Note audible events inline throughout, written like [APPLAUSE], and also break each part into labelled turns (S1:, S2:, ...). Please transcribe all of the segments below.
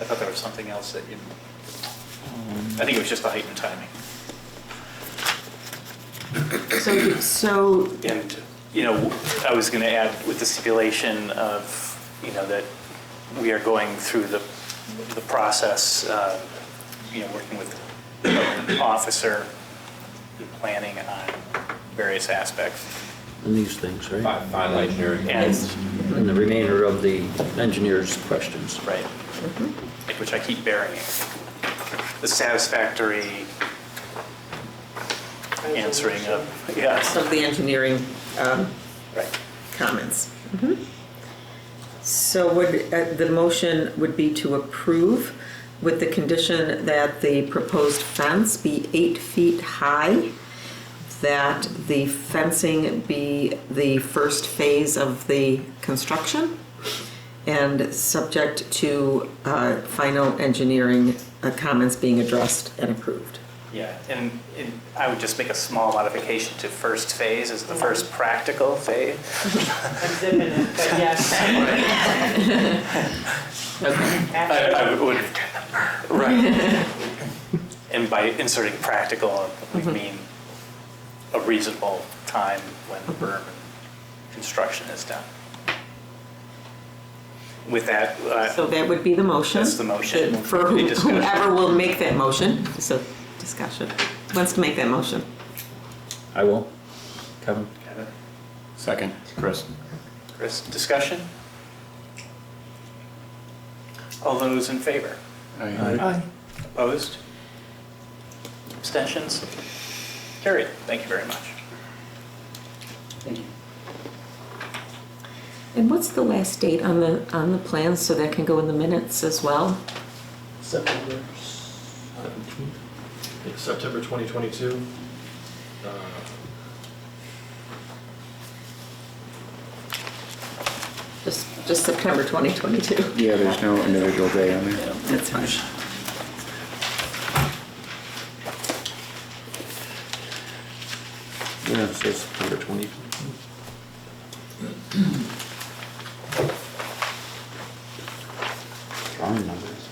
S1: I thought there was something else that you, I think it was just the height and timing.
S2: So, so
S1: And, you know, I was going to add with the stipulation of, you know, that we are going through the, the process, uh, you know, working with the development officer, planning on various aspects.
S3: and these things, right?
S4: Fi- Final engineering.
S1: And,
S3: And the remainder of the engineer's questions.
S1: right, which I keep burying. The satisfactory answering of, yes,
S2: of the engineering um,
S1: right.
S2: comments. Mm-hmm. So would, uh, the motion would be to approve with the condition that the proposed fence be eight feet high, that the fencing be the first phase of the construction, and subject to uh, final engineering uh, comments being addressed and approved.
S1: Yeah, and, and I would just make a small modification to first phase as the first practical phase.
S5: I'm zipping it,
S6: [LAUGHS]
S5: but yes,
S2: Okay.
S1: I,
S5: [LAUGHS]
S6: [LAUGHS]
S5: after,
S1: I would, right. [LAUGHS] And by inserting practical, we mean a reasonable time when the berm and construction is done. With that, uh,
S2: So that would be the motion.
S1: That's the motion.
S2: For
S1: Any
S2: who-
S1: discussion?
S2: whoever will make that motion, so discussion, Who wants to make that motion.
S3: I will. Kevin?
S4: Second, Chris.
S1: Chris, discussion? All those in favor?
S3: Aye.
S1: Opposed? Abstentions? Carried. Thank you very much.
S2: And what's the last date on the, on the plans, so that can go in the minutes as well?
S7: September. It's September 2022. Uh,
S2: Just, just September 2022.
S6: Yeah, there's no individual day on there.
S2: That's fine.
S3: Yeah, so it's September 20. Drawing numbers.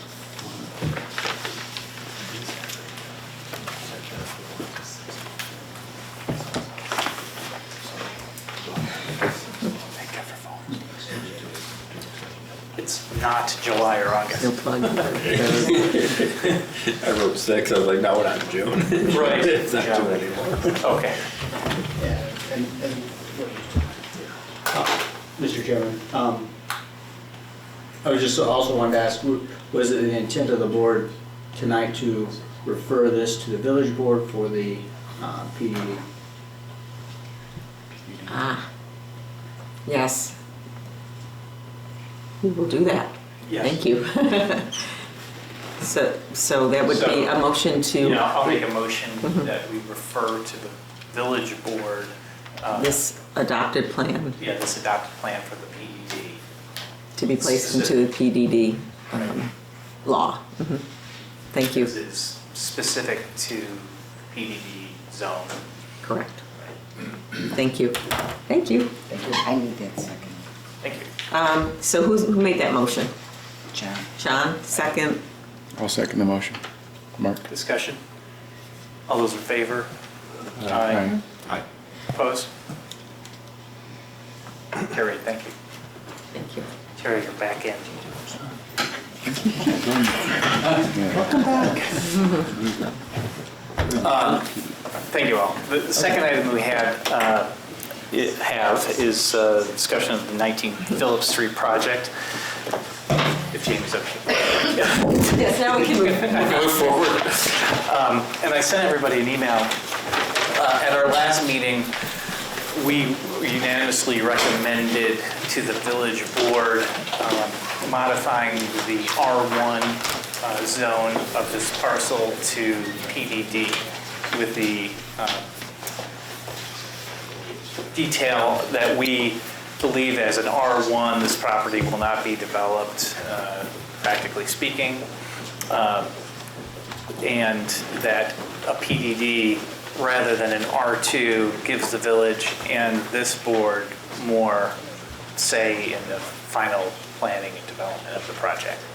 S1: It's not July or
S2: No
S1: August.
S2: plug.
S4: I wrote six, I was like, no, we're not in June.
S1: Right.
S4: [LAUGHS] It's not June anymore.
S1: Okay.
S8: Mr. Chairman, um, I was just also wanted to ask, w- was it the intent of the board tonight to refer this to the village board for the uh, PD?
S2: [LAUGHS] Ah, yes. We will do that.
S1: Yes.
S2: Thank you. [LAUGHS] So, so that would be a motion to.
S1: Yeah, I'll make a motion that we refer to the village board, uh,
S2: this adopted plan
S1: yeah, this adopted plan for the E PED.
S2: to be placed into the PDD um, law. Mhm. Thank you.
S1: This is specific to PDD zone.
S2: Correct. Thank you. Thank you.
S6: I need that second.
S1: Thank you.
S2: Um, So who's, who made that motion?
S6: John.
S2: Sean, second?
S6: I'll second the motion. Mark?
S1: Discussion? All those in favor?
S6: Aye.
S4: Aye.
S1: Opposed? Carried, thank you.
S2: Thank you.
S1: Terry, you're back in. Thank you all. The the second item we had, uh, i- have is uh, discussion of the 19 Phillips Street project. If Jamie's okay.
S2: Yes, now we can move.
S1: Go forward. Um, And I sent everybody an email. Uh, At our last meeting, we unanimously recommended to the village board um, modifying the R1 uh, zone of this parcel to PDD with the um, detail that we believe as an R1, this property will not be developed, uh, practically speaking and that a PDD rather than an R2 gives the village and this board more say in the final planning and development of the project.